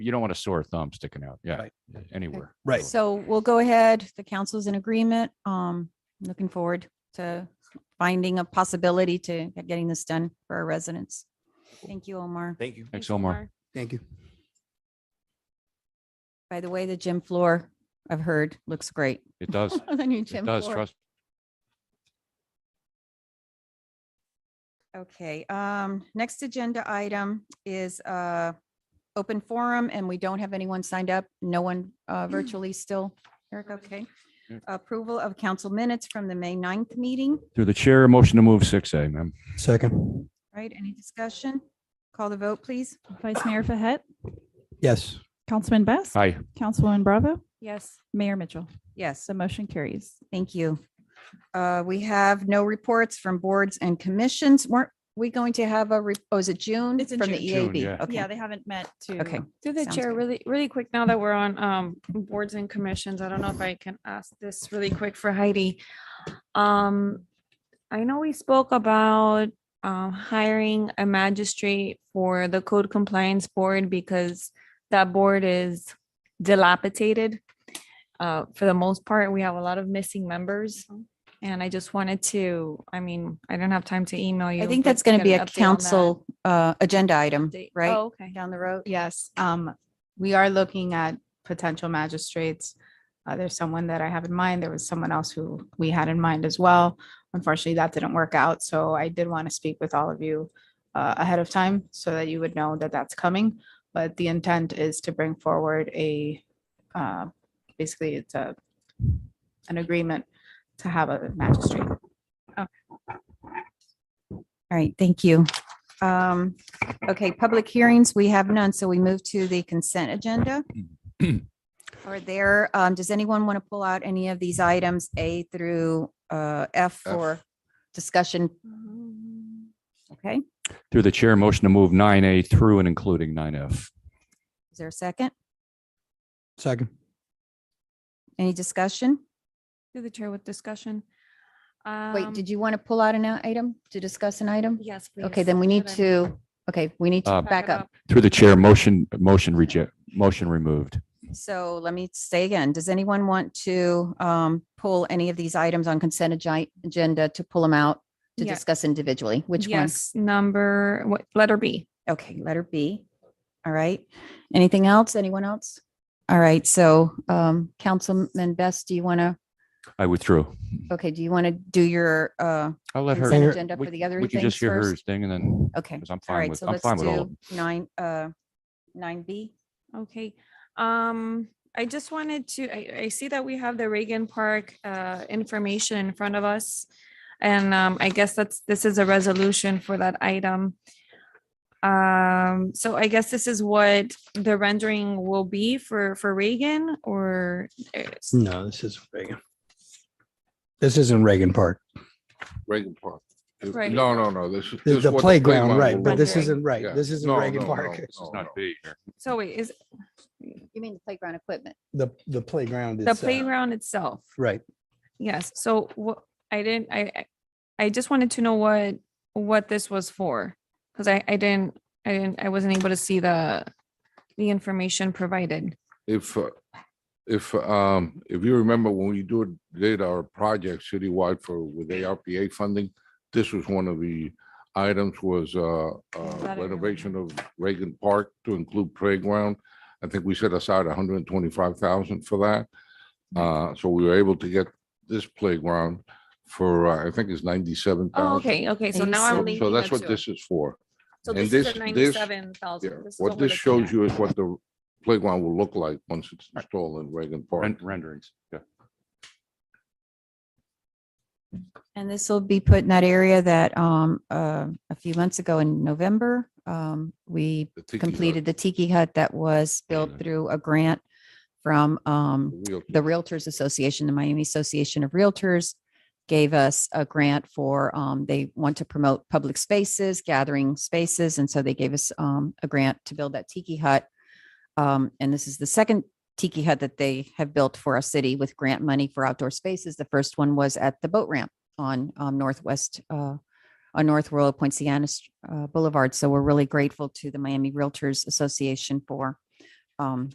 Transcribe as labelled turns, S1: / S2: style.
S1: you don't want a sore thumb sticking out. Yeah.
S2: Right.
S1: Anywhere.
S2: Right.
S3: So we'll go ahead. The council's in agreement. Um, looking forward to finding a possibility to getting this done for our residents. Thank you, Omar.
S4: Thank you.
S1: Thanks, Omar.
S2: Thank you.
S3: By the way, the gym floor, I've heard, looks great.
S1: It does.
S3: The new
S1: It
S3: gym
S1: does.
S3: floor.
S1: Trust.
S3: Okay, um, next agenda item is, uh, open forum and we don't have anyone signed up. No one, uh, virtually still. Eric, okay.
S1: Yeah.
S3: Approval of council minutes from the May 9th meeting,
S1: Through the chair, motion to move six A, ma'am.
S2: Second.
S3: right? Any discussion? Call the vote, please.
S5: Vice Mayor Fahet,
S2: Yes.
S5: Councilman Best,
S1: Hi.
S5: Councilwoman Bravo,
S3: Yes.
S5: Mayor Mitchell.
S3: Yes,
S5: So motion carries.
S3: thank you. Uh, we have no reports from boards and commissions. Weren't we going to have a, re- oh, is it June?
S5: It's in
S3: From the
S1: June. June, yeah.
S3: EAB, okay,
S5: they haven't met to.
S3: okay.
S6: Through the
S3: Sounds
S6: chair,
S3: good.
S6: really, really quick, now that we're on um boards and commissions, I don't know if I can ask this really quick for Heidi. Um, I know we spoke about um hiring a magistrate for the code compliance board because that board is dilapidated. Uh, for the most part, we have a lot of missing members.
S3: Mm-hmm.
S6: And I just wanted to, I mean, I don't have time to email you.
S3: I think
S6: but
S3: that's going to
S6: get
S3: be
S6: an
S3: a
S6: update on that.
S3: council, uh, agenda item,
S6: Update-
S3: right?
S6: Oh, Okay.
S3: Down the road.
S7: Yes, um, we are looking at potential magistrates. Uh, there's someone that I have in mind. There was someone else who we had in mind as well. Unfortunately, that didn't work out, so I did want to speak with all of you uh, ahead of time so that you would know that that's coming. But the intent is to bring forward a, uh, basically it's a, an agreement to have a magistrate.
S3: All right, thank you. Um, okay, public hearings, we have none, so we move to the consent agenda. Are there, um, does anyone want to pull out any of these items, A through, uh, F for discussion? Okay,
S1: Through the chair, motion to move nine A through and including nine F.
S3: is there a second?
S2: Second.
S3: Any discussion?
S6: Through the chair with discussion.
S3: Wait,
S6: Um,
S3: did you want to pull out an uh, item to discuss an item?
S6: Yes.
S3: Okay,
S6: please.
S3: then we need
S6: Should I
S3: to, okay, we need to
S1: Uh,
S3: back up.
S1: Through the chair, motion, motion reject, motion removed.
S3: So let me say again, does anyone want to um, pull any of these items on consent agi- agenda to pull them out to
S6: Yeah.
S3: discuss individually? Which ones?
S6: Yes, number, what, letter B.
S3: Okay, letter B. All right. Anything else? Anyone else? All right, so um, Councilman Best, do you want to,
S1: I withdrew.
S3: okay, do you want to do your, uh,
S1: I'll let her.
S3: Consent
S2: Mayor-
S3: agenda
S1: we-
S3: for the other
S1: We can
S3: things
S1: just hear her
S3: first?
S1: thing and then,
S3: Okay.
S1: because I'm
S3: All
S1: fine
S3: right,
S1: with,
S3: so
S1: I'm
S3: let's
S1: fine with all. of
S3: do
S1: them.
S3: nine, uh, nine B.
S6: Okay, um, I just wanted to, I, I see that we have the Reagan Park, uh, information in front of us. And, um, I guess that's, this is a resolution for that item. Um, so I guess this is what the rendering will be for, for Reagan or eh, it's-
S2: No, this is Reagan. This isn't Reagan Park.
S8: Reagan Park. If-
S6: Right.
S8: No, no, no, this is.
S2: The
S8: this
S2: the
S8: what the
S2: playground, right,
S8: will
S2: but
S8: be.
S2: this
S6: Rendering.
S2: isn't, right,
S8: Yeah.
S2: this isn't
S8: No,
S2: Reagan
S8: no, no,
S2: Park.
S8: no,
S1: It's
S8: no.
S1: not B here.
S6: so wait, is
S3: You mean the playground equipment?
S2: The, the playground is.
S6: the
S2: uh,
S6: playground itself?
S2: Right,
S6: Yes, so what, I didn't, I, I- I just wanted to know what, what this was for, because I, I didn't, I didn't, I wasn't able to see the, the information provided.
S8: If, uh, if, um, if you remember when we do, did our project citywide for, with ARPA funding, this was one of the items was, uh, uh,
S6: That I
S8: renovation of Reagan Park to include playground. I think we set aside hundred and twenty-five thousand for that. Uh, so we were able to get this playground for, uh, I think it's ninety-seven
S6: Oh,
S8: thousand.
S6: okay, okay, so now I'm
S3: Eighty-seven.
S6: linking
S8: So that's
S6: the
S8: what
S6: two.
S8: this is for.
S6: So
S8: and
S6: this is
S8: this-
S6: the
S8: this-
S6: ninety-seven
S8: Yeah,
S6: thousand.
S8: what this shows you is what the playground will look like once it's installed in Reagan Park.
S1: Ren- Renderings, yeah.
S3: And this will be put in that area that um, uh, a few months ago in November, um, we
S8: the tiki hut,
S3: completed the tiki hut that was built
S1: Yeah.
S3: through a grant from um,
S8: the wheel-
S3: the Realtors Association, the Miami Association of Realtors gave us a grant for, um, they want to promote public spaces, gathering spaces. And so they gave us, um, a grant to build that tiki hut. Um, and this is the second tiki hut that they have built for our city with grant money for outdoor spaces. The first one was at the boat ramp on, um, Northwest, uh, on North Royal Poinciana uh, Boulevard. So we're really grateful to the Miami Realtors Association for, um, um,